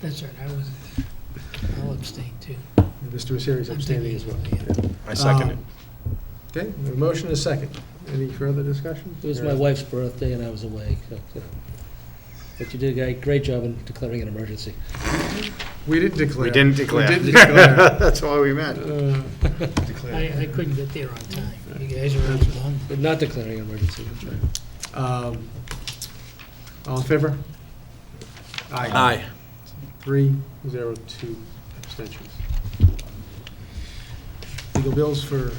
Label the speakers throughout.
Speaker 1: That's right, I wasn't there. I'll abstain too.
Speaker 2: Mr. Messeri's abstaining as well.
Speaker 3: I second it.
Speaker 2: Um, Okay, we have a motion and a second. Any further discussion?
Speaker 4: It was my wife's birthday and I was away, so, you know. But you did a great- great job in declaring an emergency.
Speaker 2: We didn't declare.
Speaker 3: We didn't declare.
Speaker 2: We didn't declare.
Speaker 3: That's why we met.
Speaker 2: Uh,
Speaker 1: I, I couldn't get there on time. You guys were out long.
Speaker 4: But Not declaring an emergency.
Speaker 2: um, All in favor?
Speaker 3: Aye.
Speaker 2: Three, zero, two abstentions. Legal bills for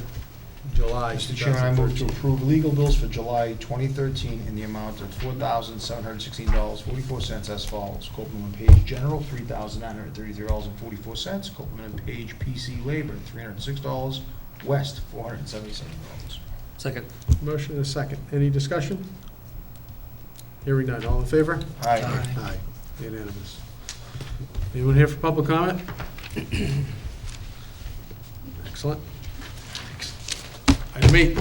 Speaker 2: July
Speaker 5: Mr. Chairman, I move to
Speaker 2: 2013.
Speaker 5: approve legal bills for July 2013 in the amount of $4,716.44 as follows. Copeland and Page General, $3,933.44. Copeland and Page PC Labor, $306. West, $477.
Speaker 4: Second.
Speaker 2: Motion and a second. Any discussion? Hearing none. All in favor?
Speaker 5: Aye.
Speaker 2: Aye. Unanimous. Anyone here for public comment? Excellent. Item eight,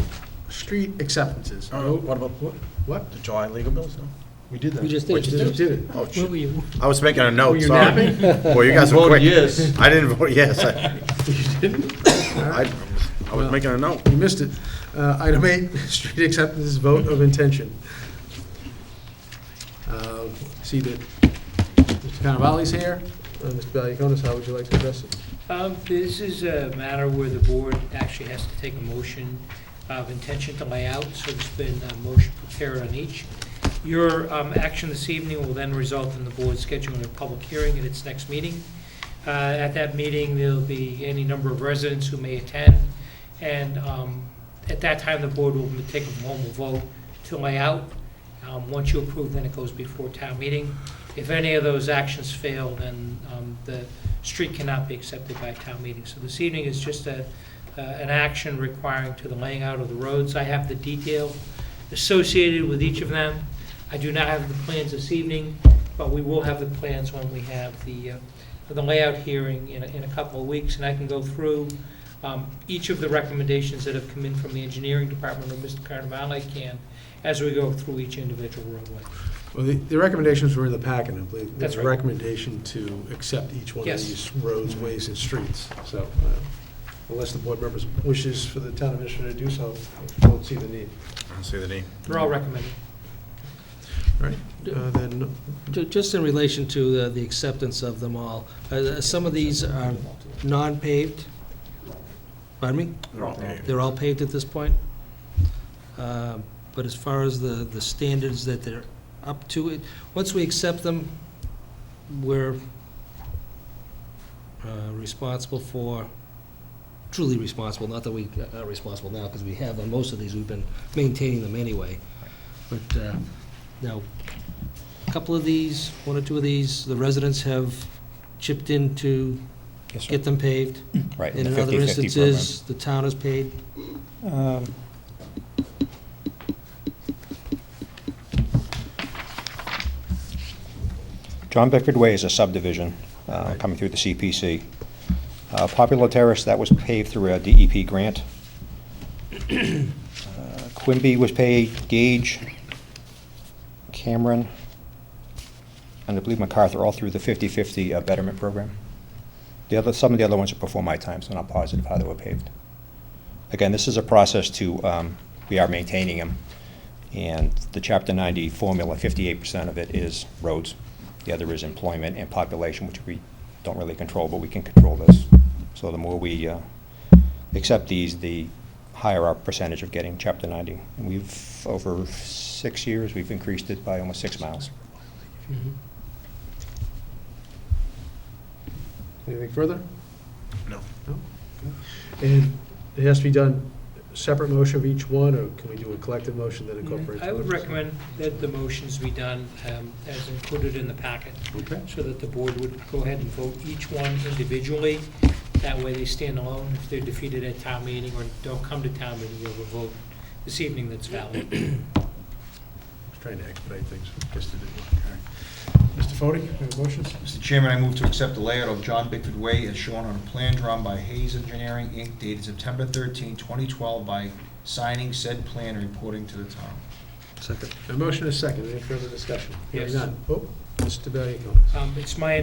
Speaker 2: street acceptances.
Speaker 3: What about
Speaker 2: What?
Speaker 3: the July legal bills? no?
Speaker 5: We did that.
Speaker 4: We just
Speaker 3: Wait,
Speaker 4: did.
Speaker 2: Just did it.
Speaker 1: Where
Speaker 3: Oh,
Speaker 1: were
Speaker 3: shit.
Speaker 1: you?
Speaker 3: I was making a
Speaker 2: Were
Speaker 3: note,
Speaker 2: you
Speaker 3: sorry.
Speaker 2: napping?
Speaker 3: Well, you guys
Speaker 5: You
Speaker 3: are
Speaker 5: voted
Speaker 3: quick.
Speaker 5: yes.
Speaker 3: I didn't vote yes. I-
Speaker 2: You didn't?
Speaker 3: I I was making a note.
Speaker 2: You missed it. Uh, Item eight, street acceptances, vote of intention. Uh, See that Mr. Cannavale's here. Uh, Mr. Valiakonis, how would you like to address it?
Speaker 6: Um, This is a matter where the board actually has to take a motion of intention to lay out, so there's been a motion prepared on each. Your um, action this evening will then result in the board scheduling a public hearing at its next meeting. Uh, At that meeting, there'll be any number of residents who may attend, and um, at that time, the board will take a formal vote to lay out. Um, Once you approve, then it goes before town meeting. If any of those actions fail, then um, the street cannot be accepted by town meeting. So this evening is just a, uh, an action requiring to the laying out of the roads. I have the detail associated with each of them. I do not have the plans this evening, but we will have the plans when we have the, uh, the layout hearing in, a- in a couple of weeks. And I can go through um, each of the recommendations that have come in from the engineering department or Mr. Carnavale can as we go through each individual roadway.
Speaker 2: Well, the- the recommendations were in the packet, I believe.
Speaker 6: That's
Speaker 2: There's a
Speaker 6: right.
Speaker 2: recommendation to accept each one of
Speaker 6: Yes. Mm-hmm.
Speaker 2: these roads, ways, and streets. So uh, unless the board members wishes for the town administrator to do so, I don't see the need.
Speaker 3: I don't see the name.
Speaker 6: They're all recommended.
Speaker 2: Uh, Then,
Speaker 4: Ju- Just in relation to the- the acceptance of them all, uh, some of these are non-paved. Pardon me?
Speaker 3: They're all paved.
Speaker 4: They're all paved at this point. Um, But as far as the, the standards that they're up to, it, once we accept them, we're uh, responsible for, truly responsible, not that we are responsible now, because we have, on most of these, we've been maintaining them anyway. But uh, now, a couple of these, one or two of these, the residents have chipped in to
Speaker 7: Yes, sir.
Speaker 4: get them paved.
Speaker 7: Right,
Speaker 4: And
Speaker 7: the
Speaker 4: in other
Speaker 7: 50/50
Speaker 4: instances, the town has paid
Speaker 7: program. Um, John Bickford Way is a subdivision uh, coming through the CPC. Uh, Popular Terrace, that was paved through a DEP grant. Uh, Quimby was paved, Gage, Cameron, and I believe MacArthur, all through the 50/50 uh, betterment program. The other, some of the other ones are before my time, so I'm not positive how they were paved. Again, this is a process to, um, we are maintaining them, and the Chapter 90 formula, 58% of it is roads. The other is employment and population, which we don't really control, but we can control this. So the more we uh, accept these, the higher our percentage of getting Chapter 90. And we've, over six years, we've increased it by almost six miles.
Speaker 2: anything further?
Speaker 3: No.
Speaker 2: And it has to be done, separate motion of each one, or can we do a collective motion that incorporates?
Speaker 6: I would
Speaker 2: all these?
Speaker 6: recommend that the motions be done um, as included in the packet,
Speaker 2: Okay.
Speaker 6: so that the board would go ahead and vote each one individually. That way they stand alone. If they're defeated at town meeting or don't come to town meeting, you have a vote this evening that's valid.
Speaker 2: I was trying to expedite things, just did it. Mr. Fode, you have motions?
Speaker 5: Mr. Chairman, I move to accept the layout of John Bickford Way as shown on a plan drawn by Hayes Engineering, Inc., dated September 13, 2012, by signing said plan and reporting to the town.
Speaker 2: Second. A motion is second. Any further discussion? Hearing
Speaker 6: Yes.
Speaker 2: none. Oh, Mr. Valiakonis.
Speaker 6: Um, It's my